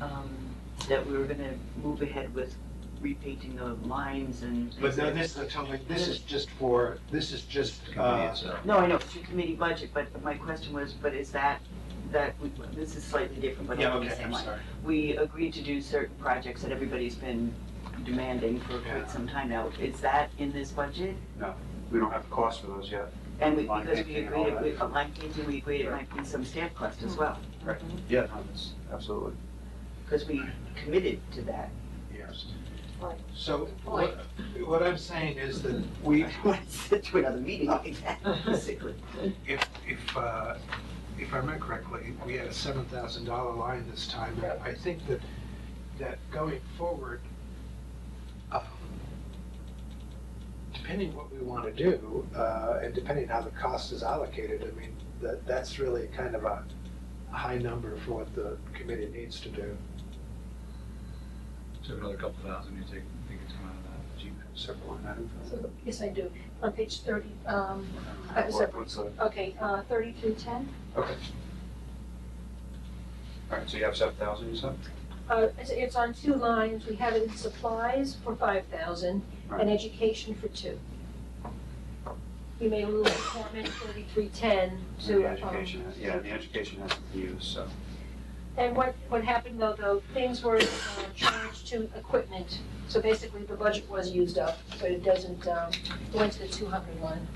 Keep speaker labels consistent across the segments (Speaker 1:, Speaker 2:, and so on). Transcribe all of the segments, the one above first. Speaker 1: um, that we were gonna move ahead with repainting the lines and.
Speaker 2: But no, this, I'm talking, this is just for, this is just, uh,
Speaker 1: No, I know, it's your committee budget, but my question was, but is that, that, we- this is slightly different, but
Speaker 2: yeah,
Speaker 1: along the
Speaker 2: okay,
Speaker 1: same
Speaker 2: I'm
Speaker 1: line.
Speaker 2: sorry.
Speaker 1: We agreed to do certain projects that everybody's been demanding for quite some time now. Is that in this budget?
Speaker 3: We don't have the cost for those yet.
Speaker 1: And we,
Speaker 3: Line
Speaker 1: because we
Speaker 3: painting and all
Speaker 1: agreed, it
Speaker 3: that.
Speaker 1: with- uh, line painting, we agreed it might be some stamp cost as well,
Speaker 2: Mm-hmm.
Speaker 3: Yeah.
Speaker 2: Um,
Speaker 3: Absolutely.
Speaker 1: because we committed to that.
Speaker 3: Yes.
Speaker 2: So what, what I'm saying is that we,
Speaker 1: Let's sit to another meeting like that, basically.
Speaker 2: if, if, uh, if I remember correctly, we had a seven thousand dollar line this time. And I think that, that going forward, um, depending what we want to do, uh, and depending how the cost is allocated, I mean, that, that's really kind of a high number for what the committee needs to do.
Speaker 4: So another couple thousand, you take, think it's coming out of that G-Pass.
Speaker 2: Separate line item.
Speaker 5: So, Yes, I do. On page thirty, um, I was,
Speaker 3: What- What's that?
Speaker 5: okay, uh, thirty-three ten,
Speaker 3: Okay. All right, so you have seven thousand, you said?
Speaker 5: uh, it's, it's on two lines. We have it in supplies for five thousand and education for two. We made a little comment, thirty-three ten
Speaker 3: And
Speaker 5: to,
Speaker 3: the
Speaker 5: um,
Speaker 3: education, yeah, and the education has to be used, so.
Speaker 5: And what, what happened though, though, things were uh, charged to equipment, so basically the budget was used up, so it doesn't, um, it went to the two hundred line.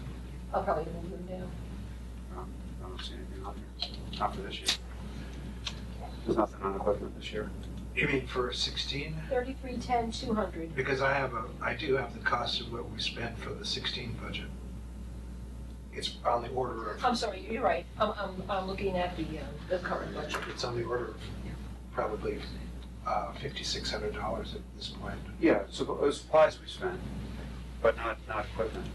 Speaker 5: I'll probably move them down.
Speaker 3: I don't see anything on here, so, not for this year. There's nothing on equipment this year.
Speaker 2: You mean for sixteen?
Speaker 5: Thirty-three ten, two hundred.
Speaker 2: Because I have a, I do have the cost of what we spent for the sixteen budget. It's on the order of,
Speaker 5: I'm sorry, you're right, I'm, I'm, I'm looking at the, um, the current budget.
Speaker 2: it's on the order of probably uh, fifty-six hundred dollars at this point.
Speaker 3: Yeah, so it was supplies we spent, but not, not equipment.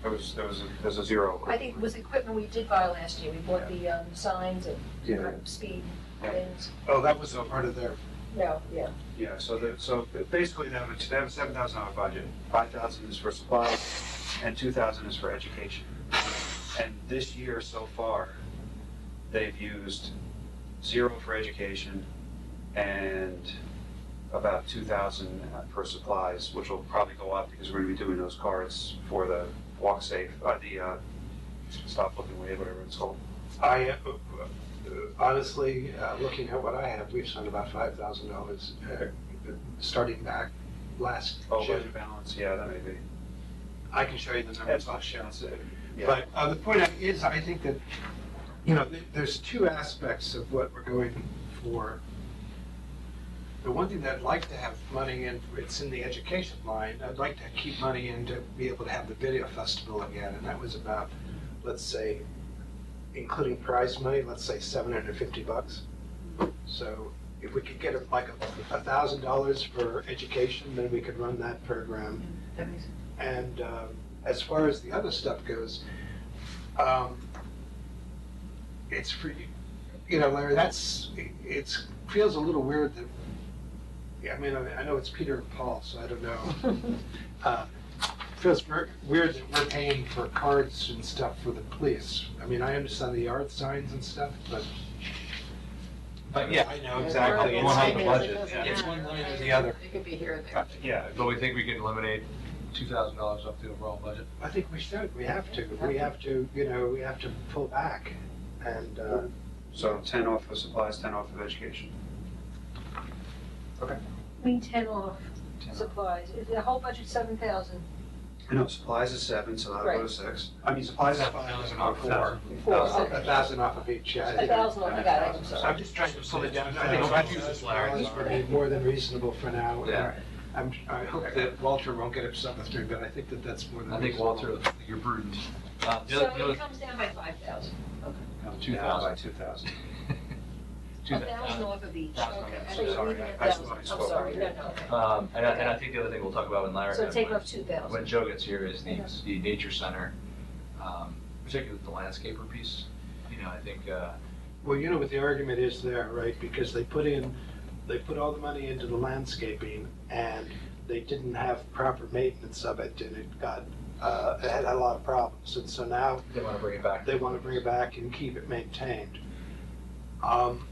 Speaker 3: There was, there was, a- there's a zero.
Speaker 5: I think it was equipment we did buy last year, we bought the, um, signs and uh,
Speaker 3: Yeah,
Speaker 5: speed
Speaker 3: Yeah.
Speaker 5: things,
Speaker 2: Oh, that was a part of their,
Speaker 5: no, yeah.
Speaker 3: yeah, so the, so basically they have a, they have a seven thousand dollar budget. Five thousand is for supplies and two thousand is for education. And this year so far, they've used zero for education and about two thousand for supplies, which will probably go up because we're gonna be doing those cards for the walk safe, uh, the, uh, stop looking away, whatever it's called.
Speaker 2: I, uh, honestly, uh, looking at what I have, we've spent about five thousand dollars, uh, starting back last
Speaker 3: Oh,
Speaker 2: June.
Speaker 3: budget balance, yeah, that may be.
Speaker 2: I can show you the numbers, I'll show.
Speaker 3: That's it. Yeah.
Speaker 2: But uh, the point I- is, I think that, you know, th- there's two aspects of what we're going for. The one thing that I'd like to have money in, it's in the education line, I'd like to keep money in to be able to have the video festival again, and that was about, let's say, including prize money, let's say seven hundred and fifty bucks. So if we could get a- like a thousand dollars for education, then we could run that program.
Speaker 1: That makes sense.
Speaker 2: And um, as far as the other stuff goes, um, it's free. You know, Larry, that's it- it's feels a little weird that. yeah, I mean, I, I know it's Peter and Paul, so I don't know. uh, feels ver- weird that we're paying for cards and stuff for the police. I mean, I understand the yard signs and stuff, but. But yeah, I know exactly.
Speaker 4: One on the
Speaker 2: It's,
Speaker 4: budget, yeah.
Speaker 2: it's one line or the other.
Speaker 6: It could be here and
Speaker 3: Uh,
Speaker 6: there.
Speaker 3: Yeah,
Speaker 4: But we think we can eliminate two thousand dollars off the overall budget.
Speaker 2: I think we should. We have to. We have to. You know, we have to pull back, and uh,
Speaker 3: So ten off of supplies, ten off of education.
Speaker 5: We ten off supplies, the whole budget seven thousand.
Speaker 3: I know, supplies is seven, so that'll go to
Speaker 5: Right.
Speaker 3: six. I mean, supplies is
Speaker 4: Thousand
Speaker 3: are
Speaker 4: off
Speaker 3: four.
Speaker 5: Four.
Speaker 2: a thousand off of each. I
Speaker 5: A
Speaker 2: think.
Speaker 5: thousand, oh I got it, I'm sorry.
Speaker 2: I'm just trying to pull it down.
Speaker 4: I think I'll use this, Larry.
Speaker 2: This would be more than reasonable for now.
Speaker 4: Yeah.
Speaker 2: I'm, I hope that Walter won't get upset with me, but I think that that's more than.
Speaker 4: I think
Speaker 2: reasonable.
Speaker 4: Walter, you're prudent. Uh, the other, the
Speaker 5: So it
Speaker 4: other,
Speaker 5: comes down by five thousand,
Speaker 4: Two
Speaker 3: Down By
Speaker 4: thousand.
Speaker 3: two thousand.
Speaker 4: two
Speaker 5: a
Speaker 4: thou-
Speaker 5: thousand off of each,
Speaker 4: Thousand,
Speaker 5: okay.
Speaker 3: yeah,
Speaker 5: I thought you were
Speaker 3: sorry,
Speaker 5: leaving at
Speaker 3: I- I
Speaker 5: thousand.
Speaker 3: spoke- I
Speaker 5: I'm
Speaker 3: spoke
Speaker 5: sorry, no,
Speaker 3: earlier.
Speaker 5: no, okay.
Speaker 4: Um, and I, and I think the other thing we'll talk about when Larry.
Speaker 5: So take off two thousand.
Speaker 4: When Joe gets here is the, the nature center, um, particularly the landscaper piece, you know, I think, uh,
Speaker 2: Well, you know what the argument is there, right? Because they put in, they put all the money into the landscaping and they didn't have proper maintenance of it and it got, uh, it had a lot of problems. And so now
Speaker 4: they wanna bring it back.
Speaker 2: they want to bring it back and keep it maintained. Um,